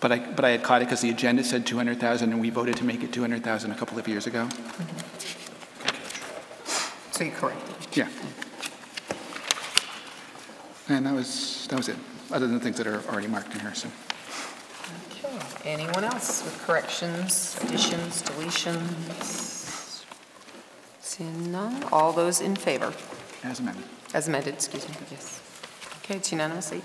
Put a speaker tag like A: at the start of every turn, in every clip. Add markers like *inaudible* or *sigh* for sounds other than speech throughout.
A: but I, but I had caught it because the agenda said 200,000, and we voted to make it 200,000 a couple of years ago.
B: So you're correct.
A: Yeah. And that was, that was it, other than the things that are already marked in here, so.
B: Okay. Anyone else with corrections, additions, deletions? Seeing none, all those in favor?
A: As amended.
B: As amended, excuse me, yes. Okay, it's unanimous, eight.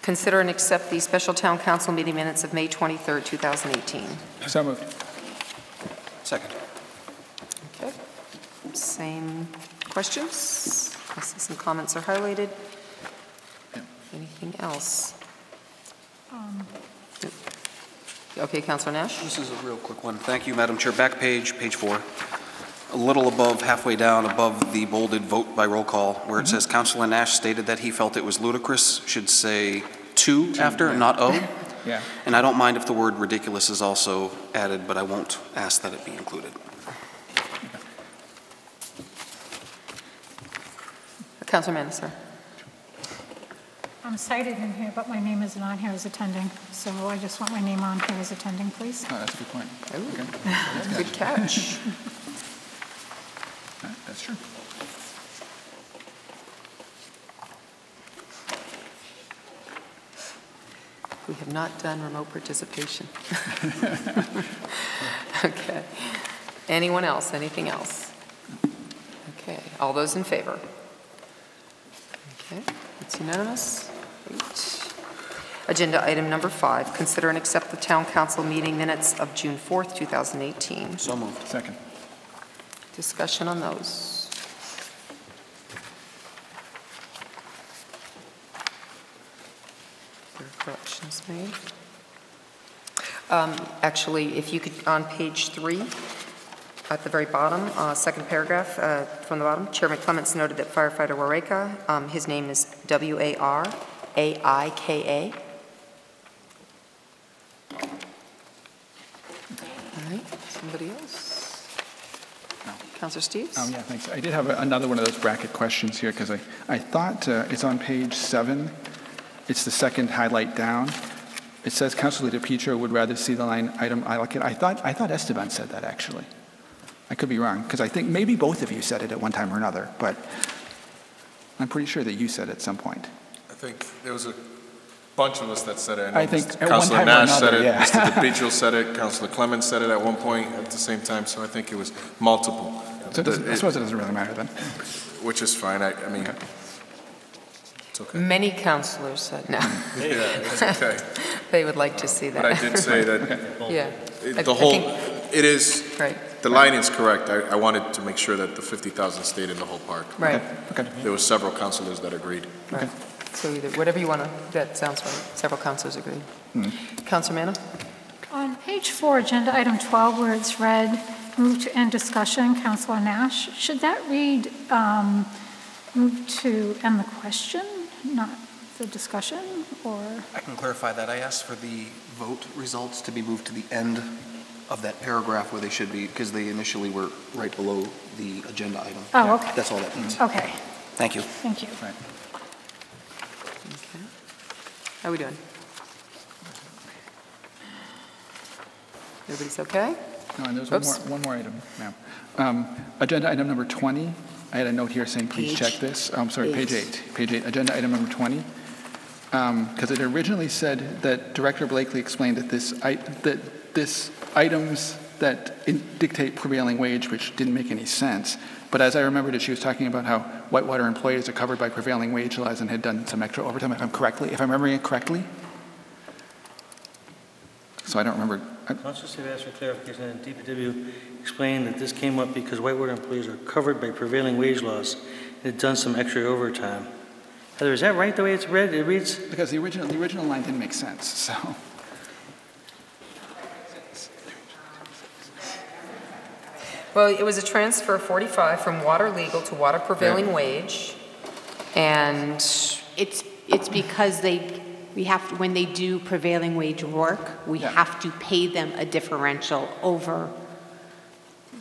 B: Consider and accept the special town council meeting minutes of May 23rd, 2018.
A: So moved.
C: Second.
B: Okay. Same questions? I see some comments are highlighted. Anything else? Okay, Counselor Nash?
C: This is a real quick one. Thank you, Madam Chair. Back page, page four. A little above, halfway down, above the bolded vote by roll call, where it says Councilor Nash stated that he felt it was ludicrous, should say two after,
A: yeah.
C: not oh. *laughs*
A: Yeah.
C: And I don't mind if the word ridiculous is also added, but I won't ask that it be included.
B: Counselor Manisser?
D: I'm cited in here, but my name isn't on here as attending, so I just want my name on here as attending, please.
A: Oh, that's a good point. Okay.
B: Good catch.
A: All right, That's true.
B: We have not done remote *laughs* participation. Okay. Anyone else? Anything else? Okay, all those in favor? Okay, it's unanimous. Great. Agenda item number five, consider and accept the town council meeting minutes of June 4th, 2018.
C: So moved.
A: Second.
B: Discussion on those. There are corrections made. Um, Actually, if you could, on page three, at the very bottom, uh, second paragraph uh, from the bottom, Chairman Clements noted that firefighter Wareka, um, his name is W-A-R-A-I-K-A. All right, somebody else? Counselor Steves?
A: Um, Yeah, thanks. I did have a- another one of those bracket questions here, because I, I thought uh, it's on page seven. It's the second highlight down. It says Council Leader Petro would rather see the line item, I like it. I thought, I thought Esteban said that, actually. I could be wrong, because I think maybe both of you said it at one time or another, but I'm pretty sure that you said at some point.
E: I think there was a bunch of us that said it. know
A: I think at
E: Mr.
A: one
E: Counselor
A: time or
E: Nash said
A: another, *laughs*
E: it,
A: yeah.
E: Mr. DePietro said it, Counselor Clemens said it at one point at the same time, so I think it was multiple.
A: So it doesn't- I
E: It-
A: suppose it doesn't really matter then.
E: Which is fine, I, I mean, it's okay.
B: Many counselors said no. *laughs*
E: *laughs* Yeah, it's okay.
B: They would like to see that.
E: But I did
A: *laughs*
E: say
B: *laughs*
E: that
B: Yeah. I- I
E: it- the whole,
B: think-
E: it is,
B: Right,
E: the line is correct. I, I wanted to make sure that the 50,000 stayed in the whole park.
B: right,
A: Okay,
E: There were several counselors that agreed.
B: right. So either, whatever you want to, that sounds right. Several counselors agree.
A: Hmm.
B: Counselor Manna?
D: On page four, agenda item 12, where it's read, move to end discussion, Counselor Nash, should that read, um, move to end the question, not the discussion, or?
C: I can clarify that. I asked for the vote results to be moved to the end of that paragraph where they should be, because they initially were right below the agenda item.
D: Oh, okay.
C: That's all that means.
D: Okay,
C: Thank you.
D: thank you.
B: Okay. How we doing? Everybody's okay?
A: No, and there's one more,
B: Oops.
A: one more item, ma'am. Um, Agenda item number 20, I had a note here saying, please check
B: Page
A: this. I'm sorry, page
B: eight.
A: eight, page eight, agenda item number 20. Because it originally said that Director Blakely explained that this, i- that this items that in- dictate prevailing wage, which didn't make any sense. But as I remembered it, she was talking about how Whitewater employees are covered by prevailing wage laws and had done some extra overtime, if I'm correctly, if I'm remembering it correctly. So I don't remember, I-
F: Council City asked for clarification, and DPW explained that this came up because Whitewater employees are covered by prevailing wage laws. They've done some extra overtime. Heather, is that right, the way it's read? It reads,
A: Because the original, the original line didn't make sense, so.
B: Well, it was a transfer of 45 from water legal to water prevailing wage, and
G: It's, it's because they, we have, to- when they do prevailing wage work, we
A: Yeah.
G: have to pay them a differential over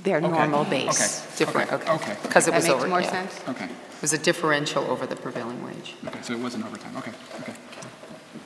G: their
A: Okay.
G: normal base.
A: Okay.
B: different,
A: Okay,
B: okay.
A: okay.
B: Because it
G: That
B: was
G: makes
B: over,
G: more
B: yeah.
G: sense?
A: Okay,
B: It was a differential over the prevailing wage.
A: okay, so it wasn't overtime, okay, okay.